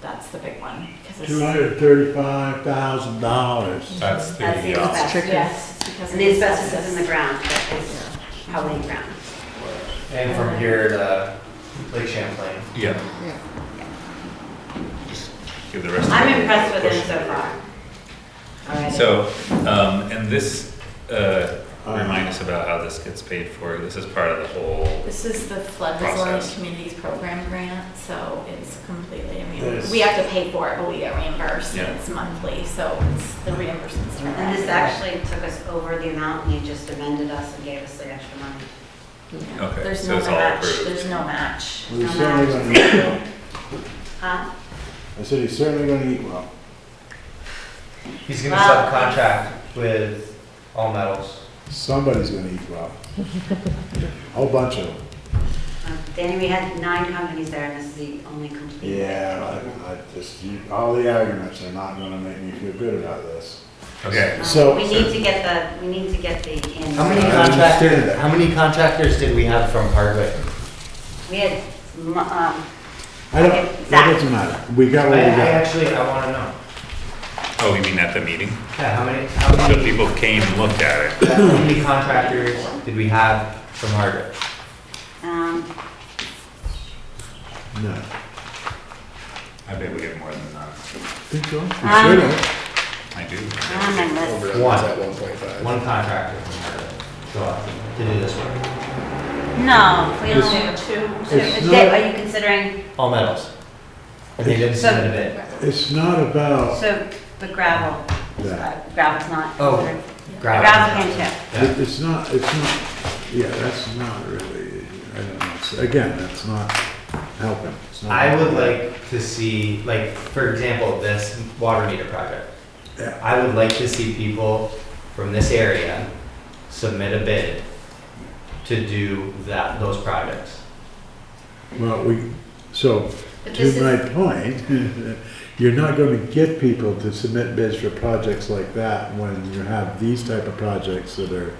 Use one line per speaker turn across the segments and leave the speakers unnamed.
That's the big one. 'cause it's-
Two hundred thirty-five thousand dollars.
That's the,
That's the
uh,
asbestos.
Yes, it's because of
And the asbestos is in
asbestos.
the ground, but it's probably ground.
And from here to Lake Champlain.
yeah,
Yeah.
just give the rest. of
I'm
it a
impressed with
push.
him so far.
So, um, and this, uh, remind us about how this gets paid for. This is part of the whole,
This is the flood resilient
Process.
communities program grant, so it's completely, I mean,
Yes.
we have to pay for it, but we get reimbursed.
Yeah.
and It's monthly, so it's the reimbursement's. for
And this
that.
actually took us over the amount, and you just amended us and gave us the extra money.
Yeah.
Okay,
There's
so
no
it's all
match.
approved.
There's no match.
Well, he's certainly gonna eat well.
Huh?
I said he's certainly gonna eat well.
He's gonna
Wow.
subcontract with all metals.
Somebody's gonna eat well. A Whole bunch of them.
Uh, Danny, we had nine companies there, and this is the only complete.
Yeah, I, I just, you- all the arguments are not gonna make me feel good about this.
okay.
Um,
So-
We need to get the, we need to get the, in-
How many
I understand
contractors,
that.
Uh, how many contractors did we have from Hardwick?
we had, mu- um,
I don't,
Okay,
that
Zach.
doesn't matter. We got
Oh,
I,
what
I
we got.
actually, I wanna know.
Oh, you mean at the meeting?
Yeah, how many, how
So
many,
people came and looked at it.
how many contractors did we have from Hardwick?
um,
No.
I bet we get more than that.
Think so? You
Um,
should have.
I do.
not on my list.
One.
At one point five.
One contractor from Hardwick, so, to do this work,
No, we only have
Two.
two.
It's
Dave,
not-
Are you considering,
all metals. And they didn't
So-
submit a bid.
It's not about
so, but gravel,
that.
uh, gravel's not.
Oh.
considered. Gravel
Gravel.
can too.
It- It's not, it's not, yeah, that's not really, I don't know. It's- Again, that's not helping. It's not
I would
helping.
like to see, like, for example, this water meter project.
Yeah.
I would like to see people from this area submit a bid to do that, those projects.
Well, we, so,
But this
to
is-
my point, you're not gonna get people to submit bids for projects like that when you have these type of projects that are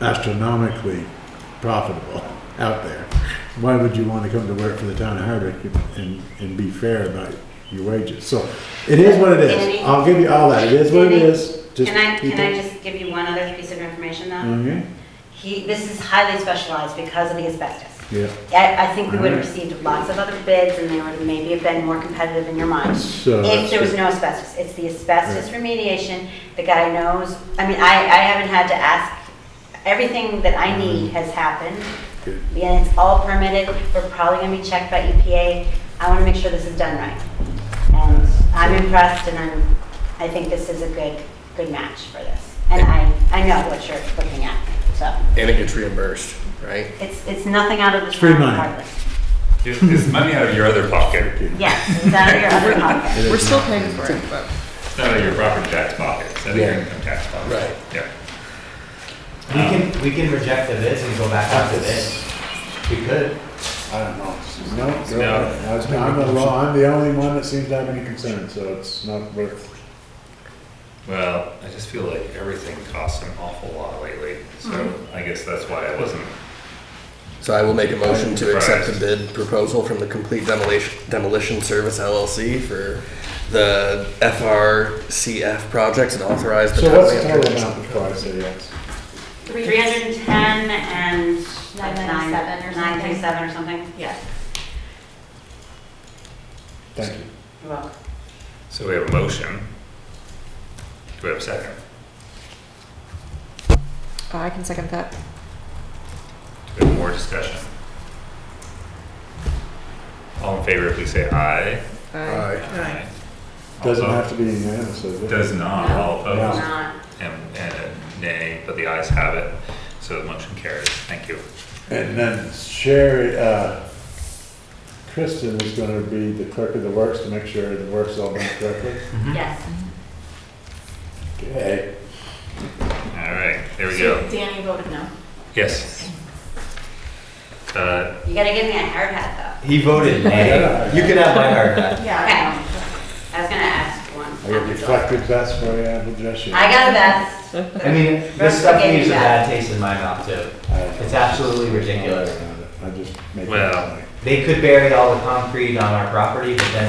astronomically profitable out there. Why would you wanna come to work for the town of Hardwick and, and be fair about your wages? So, it is what it
Danny?
is. I'll give you all that. It is what it
Danny?
is. Just
Can I,
keep
can I
it- Mm.
just uh, give you one other piece of information though?
Okay,
He, this is highly specialized because of the asbestos.
yeah.
I, I think we would have
Alright.
received lots of other bids and they would have maybe have been more competitive in your mind.
So
If there was
that's-
no asbestos, it's the asbestos remediation, the guy knows, I mean, I, I haven't had to ask, everything that
Mm.
I need has happened.
Good.
And it's all permitted, we're probably gonna be checked by EPA, I wanna make sure this is done right. And I'm impressed and I'm, I think this is a good, good match for this. And I, I know what you're looking at, so,
And it gets reimbursed, right?
it's, it's nothing out of the.
free
town
money.
regardless.
Is, is money out of your other pocket?
Yes, it's out of your other pocket.
We're still paying for it, but.
It's not out of your property tax pocket. It's out of your income tax pocket.
Right.
Yeah.
We can, we can reject the bids and go back up to bids. We could.
I don't know. No,
No.
no, I'm, I'm the law, I'm the only one that seems to have any concern, so it's not worth.
Well, I just feel like everything costs an awful lot lately, so
Mm-hmm.
I guess that's why I wasn't.
So I will make a motion to accept the
Right.
bid proposal from the Complete Demolition, Demolition Service LLC for the FRCF projects and authorize the.
So what's the
town
total
manager-
amount before I say yes?
Three.
310 and. like
997 or
nine-
something.
937 or something.
Yeah.
Thank you.
You're welcome.
So we have a motion. Do we have a second?
I can second that.
Do we have more discussion? All in favor, please say aye.
I
Aye. All
Doesn't have
opposed?
to be unanimous, Uh, does it?
Does not, all
It's
opposed,
not.
and, and a nay, but the ayes have it, so the motion carries, thank you.
And then Sherry, uh, Kristen is gonna be the clerk of the works to make sure the work's all done correctly.
Yes.
Okay.
All right, there we
So
go,
Danny voted no.
yes. Uh,
You gotta give me a hard hat
He voted nay. You can have my hard hat.
though. Okay.
Yeah.
I was gonna ask one.
I got reflective vest for you, I will dress you.
I got a vest.
I mean, this stuff leaves a bad taste in my mouth too. It's absolutely ridiculous.
I just make. it
Well,
funny.
They could bury all the concrete on our property, but then